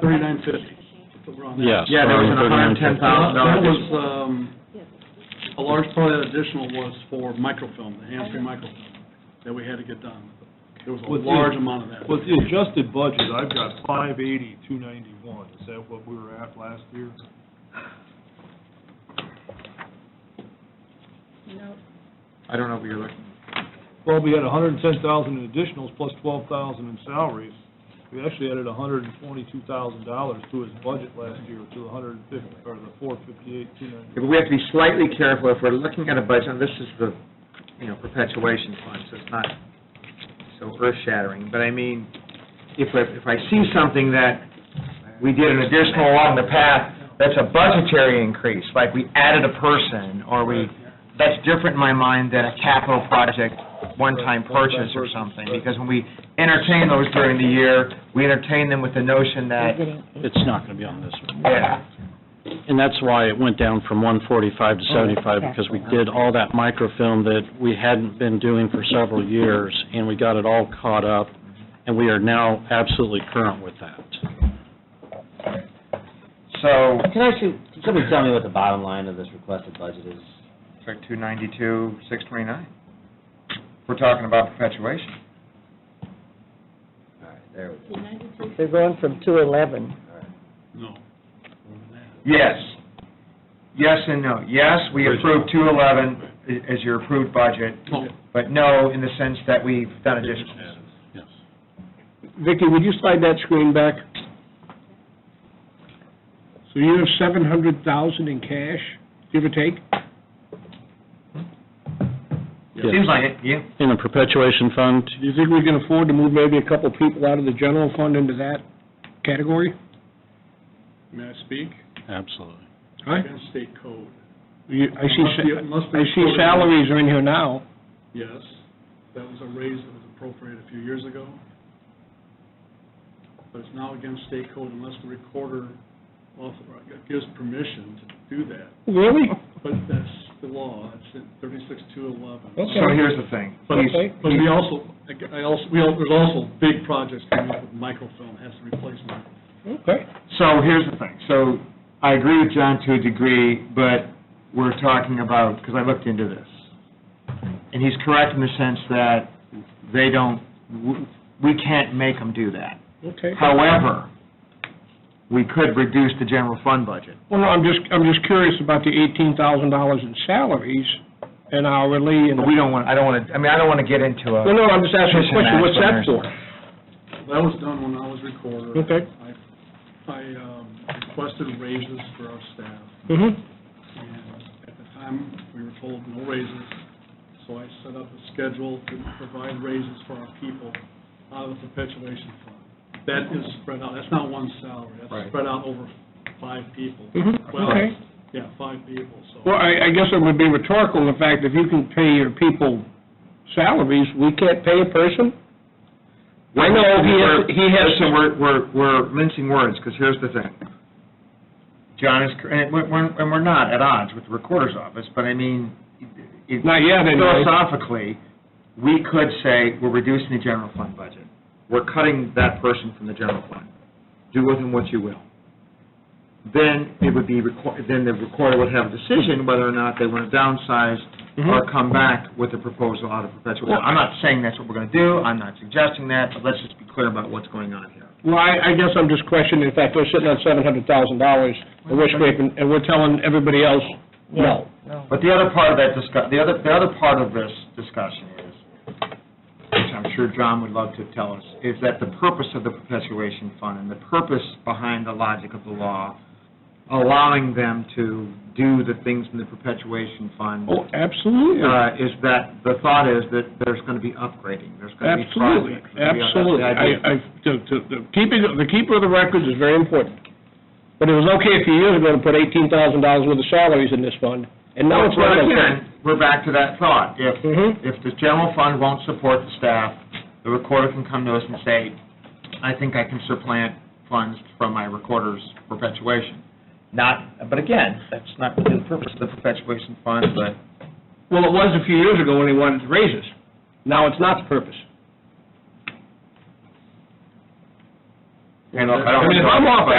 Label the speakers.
Speaker 1: Thirty-nine fifty.
Speaker 2: Yes.
Speaker 3: Yeah, there was an hundred and ten thousand dollar
Speaker 1: That was,
Speaker 3: addition.
Speaker 1: um, a large part of that additional was for microfilm, the hands-free microfilm, that we had to get done. There was a
Speaker 4: With the-
Speaker 1: large amount of that.
Speaker 4: With the adjusted budget, I've got five eighty, two ninety-one, is that what we were at last year?
Speaker 3: I don't know what you're looking,
Speaker 4: Well, we had hundred and ten thousand in additionals plus twelve thousand in salaries. We actually added hundred and twenty-two thousand dollars to his budget last year, to the hundred and fifty, or the four fifty-eight, two ninety.
Speaker 3: but we have to be slightly careful if we're looking at a budget, and this is the, you know, perpetuation fund, so it's not so earth-shattering, but I mean, if I, if I see something that we did an additional along the path, that's a budgetary increase, like we added a person, or we, that's different in my mind than a capital project, one-time purchase or something, because when we entertain those during the year, we entertain them with the notion that,
Speaker 2: It's not going to be on this one.
Speaker 3: yeah,
Speaker 2: And that's why it went down from 145
Speaker 4: Oh,
Speaker 2: to 75, because we did all that microfilm that we hadn't been doing for several years, and we got it all caught up, and we are now absolutely current with that.
Speaker 3: so,
Speaker 5: Can I see, can somebody tell me what the bottom line of this requested budget is?
Speaker 3: It's like two ninety-two, six twenty-nine. We're talking about perpetuation.
Speaker 5: All right, there we go.
Speaker 6: They're going from two eleven.
Speaker 1: No.
Speaker 3: Yes. Yes and no. Yes, we approved two eleven as your approved budget,
Speaker 4: Oh.
Speaker 1: No.
Speaker 3: but no in the sense that we've done additional.
Speaker 1: Yes.
Speaker 7: Vicki, would you slide that screen back? So you have seven hundred thousand in cash, give or take?
Speaker 2: Yes.
Speaker 3: Seems like it, yeah.
Speaker 2: In the perpetuation fund,
Speaker 7: Do you think we can afford to move maybe a couple people out of the general fund into that category?
Speaker 1: May I speak?
Speaker 2: absolutely.
Speaker 7: Huh?
Speaker 1: Against state code.
Speaker 7: You, I see,
Speaker 1: Must be-
Speaker 7: sa-
Speaker 1: must be
Speaker 7: I see
Speaker 1: voted on.
Speaker 7: salaries are in here now.
Speaker 1: Yes, that was a raise that was appropriated a few years ago. But it's now against state code unless the recorder author- gives permission to do that.
Speaker 7: Really?
Speaker 1: But that's the law, it's in thirty-six two eleven.
Speaker 7: Okay.
Speaker 3: So here's the thing.
Speaker 1: But,
Speaker 7: Okay.
Speaker 1: but we also, I also, we, al- there's also big projects coming up with microfilm, has to replace microfilm.
Speaker 7: Okay.
Speaker 3: So here's the thing. So I agree with John to a degree, but we're talking about, because I looked into this. And he's correct in the sense that they don't, w- we can't make them do that.
Speaker 7: Okay.
Speaker 3: However, we could reduce the general fund budget.
Speaker 7: Well, no, I'm just, I'm just curious about the eighteen thousand dollars in salaries and hourly and.
Speaker 3: But we don't want, I don't want to, I mean, I don't want to get into
Speaker 7: No,
Speaker 3: a,
Speaker 7: no, I'm just asking a
Speaker 3: Fishing
Speaker 7: question, what's that
Speaker 3: match
Speaker 7: for?
Speaker 1: That was done when I was recorder.
Speaker 7: Okay.
Speaker 1: I, I um, requested raises for our staff.
Speaker 7: Mm-hmm.
Speaker 1: And at the time, we were told no raises, so I set up a schedule to provide raises for our people out of the perpetuation fund. That is spread out, that's not one salary,
Speaker 3: Right.
Speaker 1: that's spread out over five people.
Speaker 7: Mhm,
Speaker 1: Well,
Speaker 7: okay.
Speaker 1: Yeah, five people, so.
Speaker 7: Well, I, I guess it would be rhetorical, in fact, if you can pay your people salaries, we can't pay a person? I know he has- he has-
Speaker 3: Listen, we're, we're, we're mincing words, because here's the thing. John is, cor- and we're, we're- and we're not at odds with the recorder's office, but I mean, it-
Speaker 7: Not yet, anyway.
Speaker 3: philosophically, we could say, we're reducing the general fund budget. We're cutting that person from the general fund. Do with him what you will. Then it would be, requ- then the recorder would have a decision whether or not they want to downsize or come back with a proposal out of perpetual. Well, I'm not saying that's what we're going to do, I'm not suggesting that, but let's just be clear about what's going on here.
Speaker 7: Well, I, I guess I'm just questioning, in fact, we're sitting on seven hundred thousand dollars, and we're scraping, and we're telling everybody else, no.
Speaker 3: But the other part of that discuss, the other, the other part of this discussion is, which I'm sure John would love to tell us, is that the purpose of the perpetuation fund and the purpose behind the logic of the law, allowing them to do the things in the perpetuation fund,
Speaker 7: Oh, absolutely,
Speaker 3: uh, is that, the thought is that there's going to be upgrading, there's going to be
Speaker 7: absolutely,
Speaker 3: projects. there's gonna be- that's the
Speaker 7: absolutely. I,
Speaker 3: idea.
Speaker 7: I, to, to, the keeping, the keeper of the records is very important. But it was okay a few years ago to put eighteen thousand dollars worth of salaries in this fund, and now it's not
Speaker 3: Well,
Speaker 7: okay.
Speaker 3: again, we're back to that thought. If,
Speaker 7: Mhm.
Speaker 3: if the general fund won't support the staff, the recorder can come to us and say, I think I can supplant funds from my recorder's perpetuation. Not, but again, that's not really the purpose of the perpetuation fund, but.
Speaker 7: Well, it was a few years ago when he wanted raises. Now it's not the purpose.
Speaker 8: I don't, I don't.
Speaker 3: I mean, if I'm off,